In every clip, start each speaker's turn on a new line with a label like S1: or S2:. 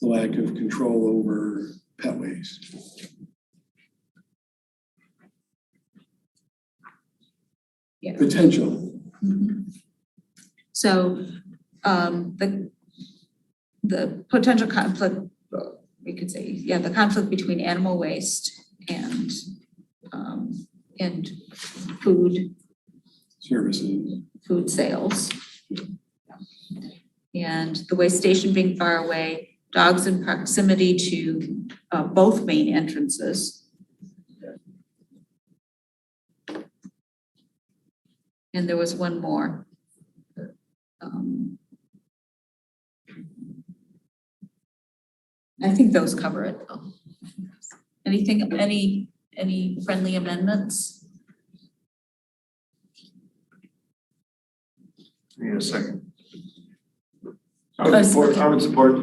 S1: the lack of control over pet waste.
S2: Yeah.
S1: Potential,
S2: So, um, the, the potential conflict, uh, we could say, yeah, the conflict between animal waste and, um, and food,
S1: services,
S2: food sales. And the waste station being far away, dogs in proximity to, uh, both main entrances. And there was one more. Um, I think those cover it though. Anything, any, any friendly amendments?
S3: Need a second. I
S2: Uh,
S3: would support, I would support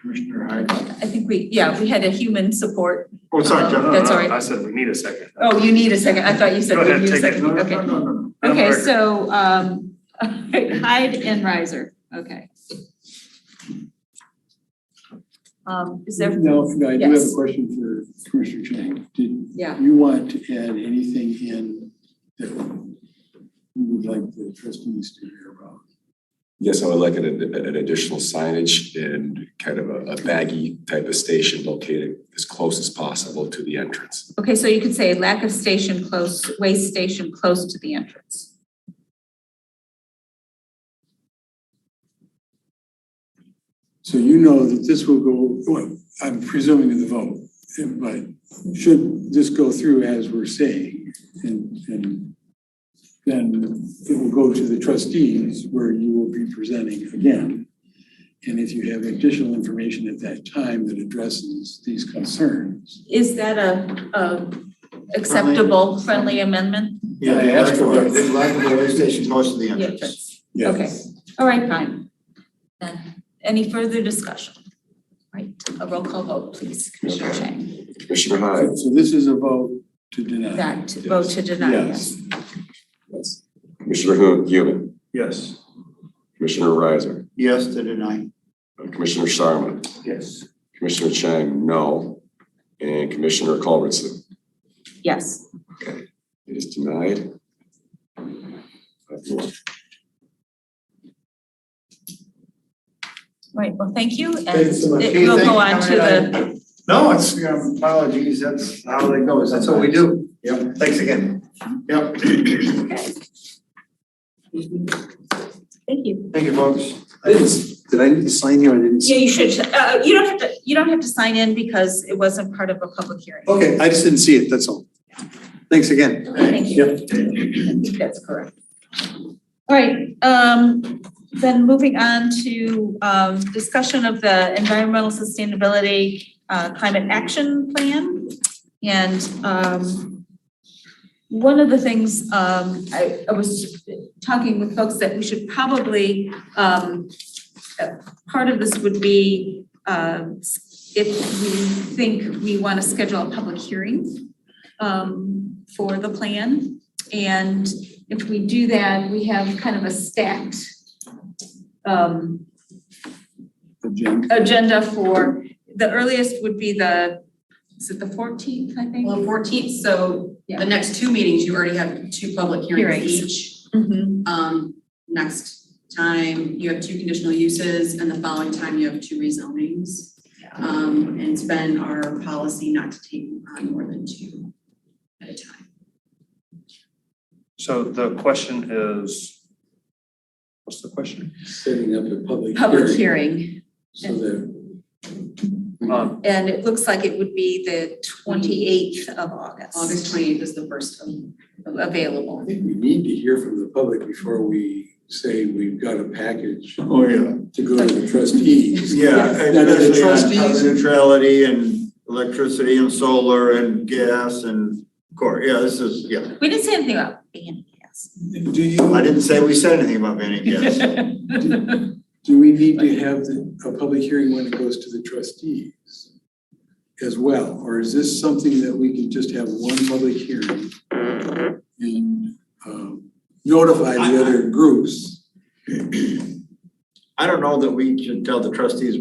S3: Commissioner Hyde.
S2: I think we, yeah, we had a human support.
S3: Oh, sorry, John.
S2: Uh, that's all right.
S4: I said we need a second.
S2: Oh, you need a second. I thought you said
S4: Go
S2: you
S4: ahead,
S2: need a
S4: take it.
S2: second.
S3: No, no,
S2: Okay.
S3: no, no, no.
S4: I'm
S2: Okay,
S4: record.
S2: so, um, Hyde and Riser, okay. Um, is there,
S1: Now, I do have a
S2: Yes.
S1: question for Commissioner Chang. Did
S2: yeah,
S1: you want to add anything in that you would like the trustees to hear about?
S5: Yes, I would like an, an additional signage and kind of a, a baggy type of station located as close as possible to the entrance.
S2: okay, so you could say lack of station close, waste station close to the entrance.
S1: So you know that this will go, well, I'm presuming in the vote, but should this go through as we're saying? And, and then it will go to the trustees where you will be presenting again. And if you have additional information at that time that addresses these concerns.
S2: Is that a, a acceptable friendly amendment?
S3: Yeah,
S1: I asked for it.
S3: the Lack of a way station close to the entrance.
S2: Yes. Okay, all right, fine. Then, any further discussion? Right, a roll call vote, please, Commissioner Chang.
S5: Commissioner Hyde?
S1: So this is a vote to deny.
S2: That, vote to deny, yes.
S5: Yes. Commissioner Hu- Human?
S3: Yes.
S5: Commissioner Riser?
S3: Yes to deny.
S5: Uh, Commissioner Sharma?
S3: Yes.
S5: Commissioner Chang, no. And Commissioner Culbertson,
S2: Yes.
S5: it is denied. Five to one.
S2: Right, well, thank you, and
S3: Thanks so much.
S2: it will
S3: Thank
S2: go
S3: you.
S2: on to the,
S3: No, it's, um, apologies, that's how that goes, that's what we do. Yep. Thanks again. Yep.
S2: thank you.
S3: Thank you, folks.
S6: Did I need to sign here? I didn't.
S2: Yeah, you should, uh, you don't have to, you don't have to sign in because it wasn't part of a public hearing.
S6: Okay, I just didn't see it, that's all. Thanks again.
S2: Thank you. I think that's correct. All right, um, then moving on to, um, discussion of the environmental sustainability, uh, climate action plan. And, um, one of the things, um, I, I was talking with folks that we should probably, um, uh, part of this would be, um, s- if we think we want to schedule a public hearing um, for the plan. And if we do that, we have kind of a stacked um,
S1: Agenda.
S2: agenda for, the earliest would be the, is it the fourteenth, I think?
S7: Well, fourteenth, so
S2: Yeah.
S7: the next two meetings, you already have two public hearings
S2: Hearings.
S7: each.
S2: Mhm.
S7: Um, next time, you have two conditional uses, and the following time, you have two rezonings. Um, and it's been our policy not to take on more than two at a time.
S4: So the question is, what's the question?
S1: Setting up a public
S2: Public
S1: hearing
S2: hearing,
S1: so that
S4: Um,
S2: and it looks like it would be the twenty-eighth of August.
S7: August twenty-eighth is the first of
S1: I
S2: Available.
S1: think we need to hear from the public before we say we've got a package
S3: Oh, yeah.
S1: to go to the trustees.
S3: Yeah,
S1: Yes. Now, do the
S3: especially on
S1: trustees-
S3: carbon neutrality and electricity and solar and gas and core, yeah, this is, yeah.
S2: We didn't say anything about banning gas.
S1: Do
S3: I
S1: you,
S3: didn't say we said anything about banning gas.
S1: do we need to have the, a public hearing when it goes to the trustees as well? Or is this something that we can just have one public hearing and, um, notify the other groups?
S3: I don't know that we should tell the trustees